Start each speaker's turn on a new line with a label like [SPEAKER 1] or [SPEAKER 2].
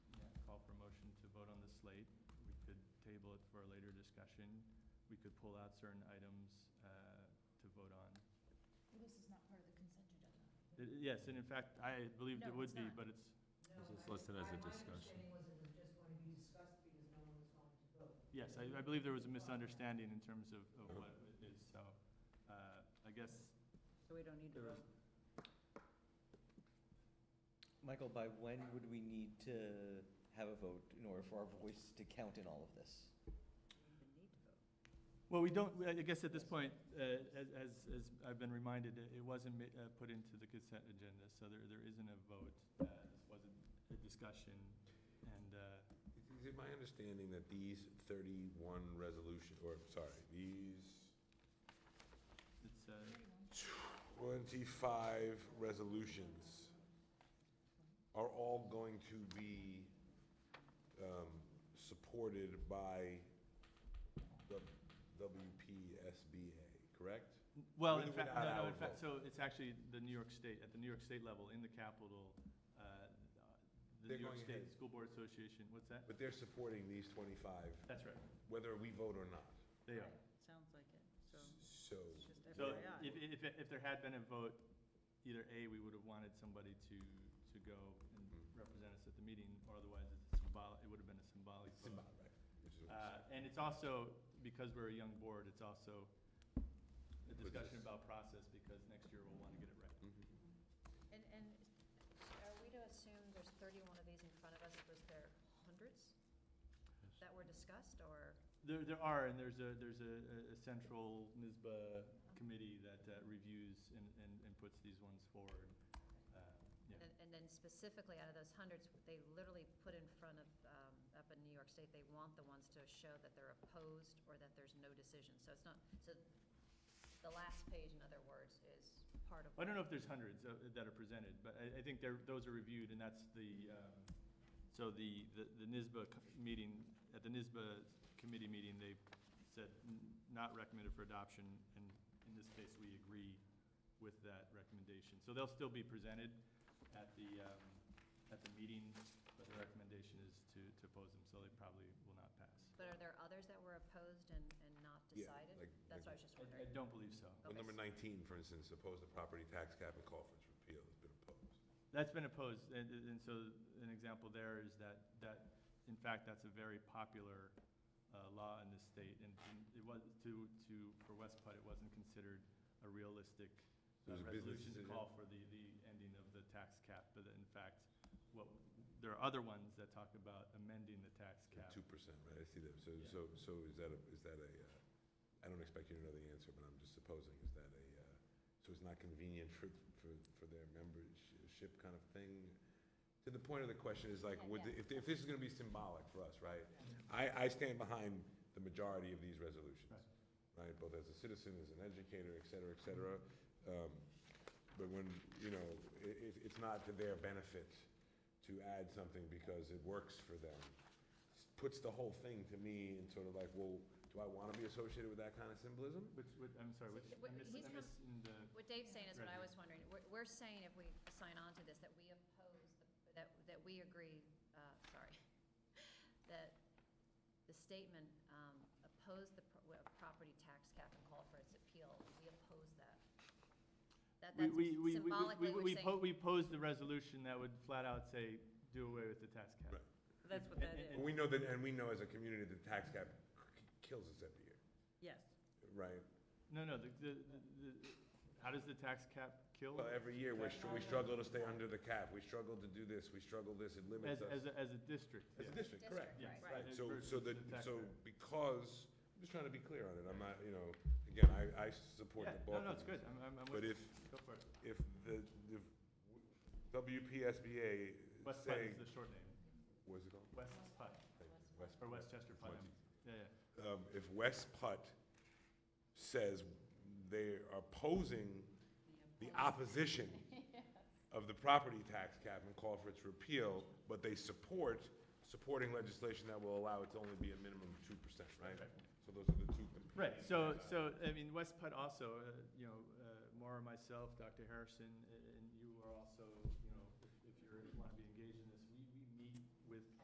[SPEAKER 1] slate. We could table it for a later discussion. We could pull out certain items uh, to vote on.
[SPEAKER 2] This is not part of the consent agenda.
[SPEAKER 1] It- Yes, and in fact, I believed it
[SPEAKER 2] No,
[SPEAKER 1] would
[SPEAKER 2] it's
[SPEAKER 1] be,
[SPEAKER 2] not.
[SPEAKER 1] but it's,
[SPEAKER 3] No,
[SPEAKER 4] This is
[SPEAKER 3] I-
[SPEAKER 4] listed as a
[SPEAKER 3] I- My
[SPEAKER 4] discussion.
[SPEAKER 3] understanding was it was just going to be discussed because no one was going to vote.
[SPEAKER 1] yes, I I believe there was a misunderstanding in terms of of what it is, so uh, I guess
[SPEAKER 5] So we don't need to
[SPEAKER 1] There is-
[SPEAKER 5] vote?
[SPEAKER 6] Michael, by when would we need to have a vote in order for our voice to count in all of this?
[SPEAKER 5] We don't even need to vote.
[SPEAKER 1] Well, we don't, I guess at this point, uh, as, as as I've been reminded, it it wasn't ma- uh, put into the consent agenda, so there, there isn't a vote. Uh, This wasn't a discussion, and, uh,
[SPEAKER 7] Is it my understanding that these 31 resolution, or, sorry, these
[SPEAKER 1] it's, uh,
[SPEAKER 7] 25 resolutions are all going to be um, supported by the WPSBA, correct?
[SPEAKER 1] well, in
[SPEAKER 7] With or
[SPEAKER 1] fact,
[SPEAKER 7] without
[SPEAKER 1] no, no,
[SPEAKER 7] our
[SPEAKER 1] in fact,
[SPEAKER 7] vote.
[SPEAKER 1] so it's actually the New York State, at the New York State level, in the capital, uh, the New
[SPEAKER 7] They're
[SPEAKER 1] York
[SPEAKER 7] going
[SPEAKER 1] State
[SPEAKER 7] ahead.
[SPEAKER 1] School Board Association, what's that?
[SPEAKER 7] But they're supporting these 25,
[SPEAKER 1] That's right,
[SPEAKER 7] whether we vote or not.
[SPEAKER 1] they are.
[SPEAKER 5] Sounds like it,
[SPEAKER 7] So,
[SPEAKER 5] so it's just
[SPEAKER 1] So
[SPEAKER 5] FYI.
[SPEAKER 1] if, if, if there had been a vote, either A, we would have wanted somebody to, to go and
[SPEAKER 7] Mhm.
[SPEAKER 1] represent us at the meeting, or otherwise it's symbolic, it would have been a symbolic
[SPEAKER 7] it's
[SPEAKER 1] vote.
[SPEAKER 7] symbolic, which is what I'm
[SPEAKER 1] Uh,
[SPEAKER 7] saying.
[SPEAKER 1] and it's also, because we're a young board, it's also a discussion
[SPEAKER 7] is-
[SPEAKER 1] about process, because next year we'll want to get it right.
[SPEAKER 7] Mhm.
[SPEAKER 4] And, and are we to assume there's thirty-one of these in front of us, was there hundreds that were discussed, or?
[SPEAKER 1] There, there are, and there's a, there's a, a- a central NISBA committee that uh, reviews and, and, and puts these ones forward. Uh, yeah.
[SPEAKER 4] And, and then specifically out of those hundreds, they literally put in front of, um, up in New York State, they want the ones to show that they're opposed or that there's no decision. So it's not, so the last page, in other words, is part of.
[SPEAKER 1] I don't know if there's hundreds uh, that are presented, but I, I think there, those are reviewed, and that's the, um, so the, the the NISBA co- meeting, at the NISBA committee meeting, they said n- not recommended for adoption, and in this case, we agree with that recommendation. So they'll still be presented at the, um, at the meeting, but the recommendation is to, to oppose them, so they probably will not pass.
[SPEAKER 4] But are there others that were opposed and, and not
[SPEAKER 7] Yeah,
[SPEAKER 4] decided?
[SPEAKER 7] like-
[SPEAKER 4] That's what I was just
[SPEAKER 1] I, I
[SPEAKER 4] wondering.
[SPEAKER 1] don't believe so.
[SPEAKER 7] Well,
[SPEAKER 4] Okay.
[SPEAKER 7] number 19, for instance, opposed the property tax cap and call for its repeal, has been opposed.
[SPEAKER 1] That's been opposed, and, and so an example there is that, that, in fact, that's a very popular uh, law in this state, and and it was, to, to, for West Putt, it wasn't considered a realistic
[SPEAKER 7] So it
[SPEAKER 1] uh,
[SPEAKER 7] was a business
[SPEAKER 1] resolution to
[SPEAKER 7] decision.
[SPEAKER 1] call for the, the ending of the tax cap, but in fact, what, there are other ones that talk about amending the tax cap.
[SPEAKER 7] Two percent, right, I see that, so,
[SPEAKER 1] Yeah.
[SPEAKER 7] so, so is that a, is that a, uh, I don't expect you to know the answer, but I'm just supposing, is that a, uh, so it's not convenient for, for, for their membership kind of thing? To the point of the question is like,
[SPEAKER 4] Yeah,
[SPEAKER 7] would,
[SPEAKER 4] yeah.
[SPEAKER 7] if, if this is gonna be symbolic for us, right? I, I stand behind the majority of these resolutions, right, both as a citizen, as an educator, et cetera, et cetera. Um, But when, you know, i it, it's not to their benefit to add something because it works for them puts the whole thing to me in sort of like, well, do I want to be associated with that kind of symbolism?
[SPEAKER 1] Which, which, I'm sorry, which, I
[SPEAKER 4] Wait,
[SPEAKER 1] miss,
[SPEAKER 4] he's
[SPEAKER 1] I
[SPEAKER 4] com-
[SPEAKER 1] miss in the.
[SPEAKER 4] What Dave's saying is what I
[SPEAKER 1] Right.
[SPEAKER 4] was wondering. We're, we're saying if we sign on to this, that we oppose, the- that, that we agree, uh, sorry, that the statement, um, oppose the pro- uh, property tax cap and call for its appeal, we oppose that. That,
[SPEAKER 1] We-
[SPEAKER 4] that's
[SPEAKER 1] we- we- we-
[SPEAKER 4] symbolically,
[SPEAKER 1] we-
[SPEAKER 4] we're
[SPEAKER 1] we po-
[SPEAKER 4] saying,
[SPEAKER 1] We posed the resolution that would flat out say, do away with the tax cap.
[SPEAKER 7] Right.
[SPEAKER 5] That's what that
[SPEAKER 7] And
[SPEAKER 5] is,
[SPEAKER 7] we know that, and we know as a community that the tax cap k- kills us every year,
[SPEAKER 5] yes.
[SPEAKER 7] right?
[SPEAKER 1] No, no, the, the, the, the- how does the tax cap kill?
[SPEAKER 7] Well, every year, we're, str- we struggle to stay under the cap, we struggle to do this, we struggle this, it
[SPEAKER 1] As,
[SPEAKER 7] limits us.
[SPEAKER 1] as, a- as a district,
[SPEAKER 7] As a
[SPEAKER 1] yeah.
[SPEAKER 7] district, correct.
[SPEAKER 4] District,
[SPEAKER 1] Yes,
[SPEAKER 4] right.
[SPEAKER 7] Right, so,
[SPEAKER 1] versus
[SPEAKER 7] so
[SPEAKER 1] the
[SPEAKER 7] that,
[SPEAKER 1] tax
[SPEAKER 7] so
[SPEAKER 1] rate.
[SPEAKER 7] because, I'm just trying to be clear on it, I'm not, you know, again, I, I support the
[SPEAKER 1] Yeah,
[SPEAKER 7] bulk
[SPEAKER 1] no, no,
[SPEAKER 7] of
[SPEAKER 1] it's good,
[SPEAKER 7] these.
[SPEAKER 1] I'm, I'm, I'm
[SPEAKER 7] But
[SPEAKER 1] with you.
[SPEAKER 7] if-
[SPEAKER 1] Go for it.
[SPEAKER 7] If the, if WPSBA
[SPEAKER 1] West Putt is the
[SPEAKER 7] saying,
[SPEAKER 1] short name,
[SPEAKER 7] what's it called?
[SPEAKER 1] West Putt,
[SPEAKER 7] Thank you.
[SPEAKER 1] or Westchester Putt,
[SPEAKER 7] West-
[SPEAKER 1] yeah, yeah.
[SPEAKER 7] um, if West Putt says they are opposing the opposition of the property tax cap and call for its repeal, but they support, supporting legislation that will allow it to only be a minimum of two percent, right?
[SPEAKER 1] Right.
[SPEAKER 7] So those are the two. competing-
[SPEAKER 1] Right, so, so, I mean, West Putt also, uh, you know, uh, Maura, myself, Dr. Harrison, a- and you are also